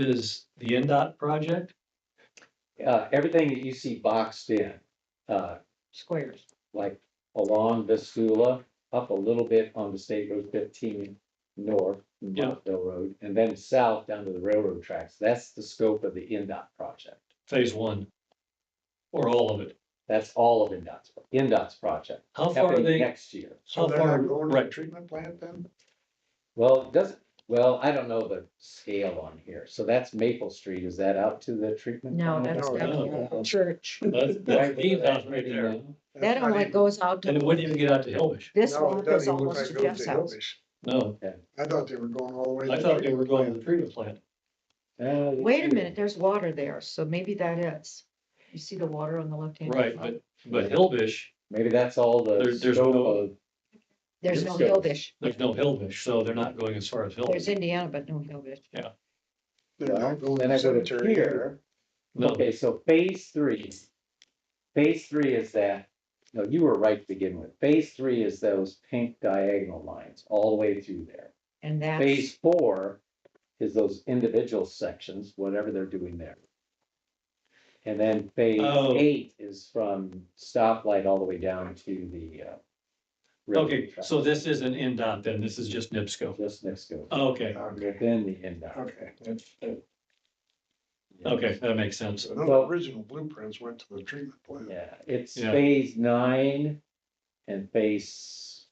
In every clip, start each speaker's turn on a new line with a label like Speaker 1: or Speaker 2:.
Speaker 1: is the NDOT project?
Speaker 2: Uh, everything that you see boxed in, uh,
Speaker 3: squares.
Speaker 2: like along Vascula, up a little bit on the State Road fifteen north,
Speaker 1: Yeah.
Speaker 2: Montville Road, and then south down to the railroad tracks. That's the scope of the NDOT project.
Speaker 1: Phase one? Or all of it?
Speaker 2: That's all of NDOT's, NDOT's project,
Speaker 1: How far are
Speaker 2: happening
Speaker 1: they,
Speaker 2: next year.
Speaker 1: how
Speaker 4: So they're
Speaker 1: far,
Speaker 4: not going to the
Speaker 1: right,
Speaker 4: treatment plant then?
Speaker 2: Well, it doesn't, well, I don't know the scale on here. So that's Maple Street. Is that out to the treatment?
Speaker 3: No,
Speaker 2: plant?
Speaker 3: that's
Speaker 4: No,
Speaker 3: down
Speaker 1: no.
Speaker 3: to the church.
Speaker 1: that's,
Speaker 2: Right,
Speaker 1: that's Dean's house right there,
Speaker 2: now.
Speaker 3: That
Speaker 4: not
Speaker 3: only
Speaker 4: even-
Speaker 3: goes out
Speaker 1: and it
Speaker 3: to,
Speaker 1: wouldn't even get out to Hillbush,
Speaker 3: this
Speaker 4: No, it
Speaker 3: one goes
Speaker 4: doesn't even look
Speaker 3: almost
Speaker 4: like
Speaker 3: to
Speaker 4: it goes
Speaker 3: Jeff's house.
Speaker 4: Hillfish.
Speaker 1: no,
Speaker 4: I thought they were going all the way.
Speaker 1: I
Speaker 4: to
Speaker 1: thought they
Speaker 4: treatment
Speaker 1: were going to
Speaker 4: plant.
Speaker 1: the treatment plant.
Speaker 2: Uh, let's
Speaker 3: Wait a
Speaker 2: see.
Speaker 3: minute, there's water there, so maybe that is. You see the water on the left-hand?
Speaker 1: Right, but, but Hillbush,
Speaker 2: Maybe that's all
Speaker 1: There-
Speaker 2: the
Speaker 1: there's
Speaker 2: scope
Speaker 1: no-
Speaker 2: of,
Speaker 3: There's
Speaker 2: Yes,
Speaker 3: no
Speaker 2: there is.
Speaker 3: Hillbush.
Speaker 1: there's no Hillbush, so they're not going as far as
Speaker 3: There's
Speaker 1: Hillbush.
Speaker 3: Indiana, but no Hillbush.
Speaker 4: They're not going
Speaker 2: then
Speaker 4: to
Speaker 2: I go
Speaker 4: cemetery
Speaker 2: to
Speaker 4: here.
Speaker 2: here. Okay, so phase three. Phase three is that, no, you were right to begin with. Phase three is those pink diagonal lines all the way through there.
Speaker 3: And that's,
Speaker 2: Phase four is those individual sections, whatever they're doing there. And then phase
Speaker 1: Oh.
Speaker 2: eight is from stoplight all the way down to the, uh. railroad
Speaker 1: Okay,
Speaker 2: track,
Speaker 1: so this Oh. isn't NDOT then, this is just NIPSCO.
Speaker 2: Just next to, it,
Speaker 1: Okay,
Speaker 4: Okay,
Speaker 2: within the end. of it.
Speaker 4: okay. that's-
Speaker 1: okay, that makes sense.
Speaker 4: So the
Speaker 2: Well-
Speaker 4: original blueprints went to the treatment plant.
Speaker 2: Yeah, it's
Speaker 1: Yeah.
Speaker 2: phase nine and phase.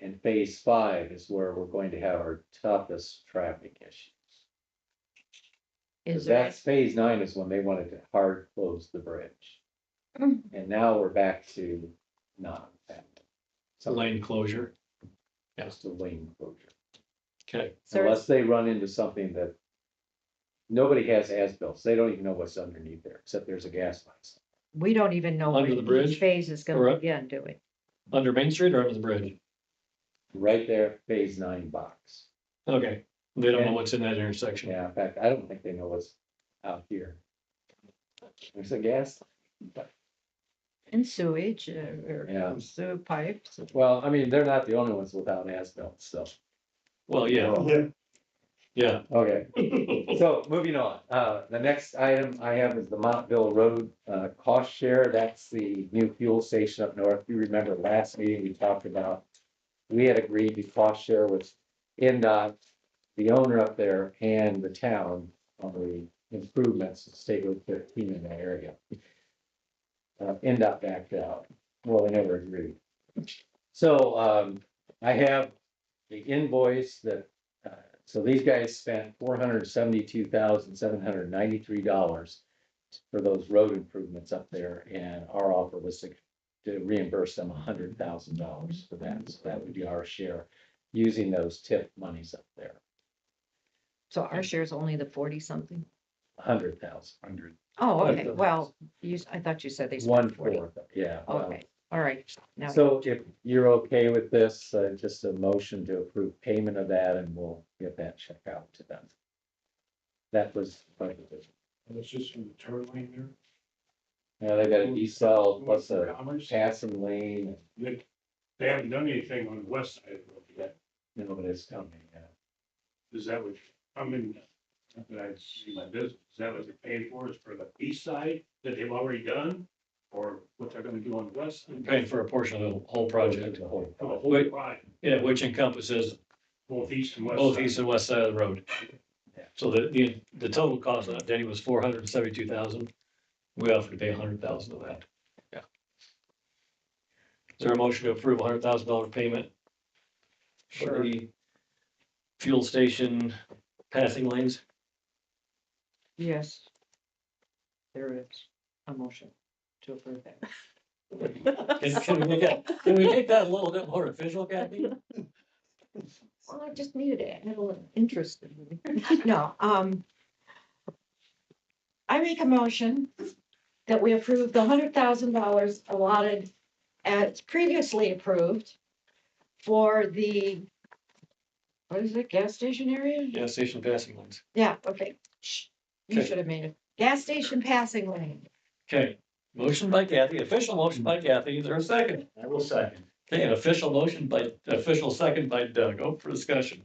Speaker 2: And phase five is where we're going to have our toughest traffic issues.
Speaker 3: is there,
Speaker 2: That's phase nine is when they wanted to hard close the bridge.
Speaker 3: Mm.
Speaker 2: And now we're back to not that.
Speaker 1: It's a lane closure. yeah.
Speaker 2: Just a lane closure,
Speaker 1: Okay,
Speaker 3: so
Speaker 2: unless they run into something that. Nobody has as-built, so they don't even know what's underneath there, except there's a gas line.
Speaker 3: we don't even know
Speaker 1: Under
Speaker 3: when
Speaker 1: the bridge?
Speaker 3: each phase is gonna
Speaker 1: Correct.
Speaker 3: begin, do we?
Speaker 1: under Main Street or under the bridge?
Speaker 2: Right there, phase nine box.
Speaker 1: Okay, they don't know
Speaker 2: And-
Speaker 1: what's in that intersection.
Speaker 2: Yeah, in fact, I don't think they know what's out here. There's a gas,
Speaker 3: And sewage uh, or
Speaker 2: yeah,
Speaker 3: sewer pipes.
Speaker 2: well, I mean, they're not the only ones without as-built, so,
Speaker 1: Well, yeah,
Speaker 4: Yeah.
Speaker 1: yeah.
Speaker 2: okay. So moving on, uh, the next item I have is the Montville Road, uh, cost share. That's the new fuel station up north. You remember last meeting, we talked about. We had agreed to cost share with NDOT, the owner up there and the town on the improvements to State Road fifteen in that area. Uh, NDOT backed out. Well, they never agreed. So, um, I have the invoice that Uh, so these guys spent four hundred seventy-two thousand, seven hundred ninety-three dollars for those road improvements up there, and our offer was to to reimburse them hundred thousand dollars for that, so that would be our share using those tip monies up there,
Speaker 3: So our share is only the forty something?
Speaker 2: hundred thousand,
Speaker 4: Hundred.
Speaker 3: Oh,
Speaker 1: Right,
Speaker 3: okay,
Speaker 1: so-
Speaker 3: well, you, I thought you said they
Speaker 2: one
Speaker 3: spent forty.
Speaker 2: fourth, yeah. well,
Speaker 3: Okay, all right, now.
Speaker 2: So if you're okay with this, uh, just a motion to approve payment of that, and we'll get that check out to them. That was,
Speaker 4: That's just from the turn lane
Speaker 2: now
Speaker 4: there.
Speaker 2: they got a decel plus a passing lane,
Speaker 5: They, they haven't done anything on the west side of the road yet.
Speaker 2: you know, but it's coming, yeah.
Speaker 5: Is that what, I mean, not that I see my business, is that what they're paying for is for the east side that they've already done? Or what they're gonna do on the west? side?
Speaker 1: Paying for a portion of the whole project,
Speaker 2: The whole
Speaker 5: For the
Speaker 2: project.
Speaker 5: whole ride,
Speaker 1: yeah, which encompasses
Speaker 5: both east and west.
Speaker 1: both
Speaker 5: side.
Speaker 1: east and west side of the road.
Speaker 2: Yeah.
Speaker 1: So the, the, the total cost of that, Denny, was four hundred and seventy-two thousand. We offered to pay a hundred thousand of that. Yeah. Is there a motion to approve a hundred thousand dollar payment? For
Speaker 3: Sure.
Speaker 1: the fuel station passing lanes?
Speaker 3: Yes. There is a motion to approve that.
Speaker 1: Can, can we make that, can we make that a little bit more official, Kathy?
Speaker 3: Well, I just needed it, I had a little interest in it. No, um. I make a motion that we approve the hundred thousand dollars allotted as previously approved for the, what is it, gas station area?
Speaker 1: Gas station passing lanes.
Speaker 3: Yeah, okay. Shh. You
Speaker 1: Okay.
Speaker 3: should have made it. Gas station passing lane.
Speaker 1: Okay, motion by Kathy, official motion by Kathy, is there a second?
Speaker 4: I will second.
Speaker 1: Okay, an official motion by, official second by Doug, open Oh, for discussion.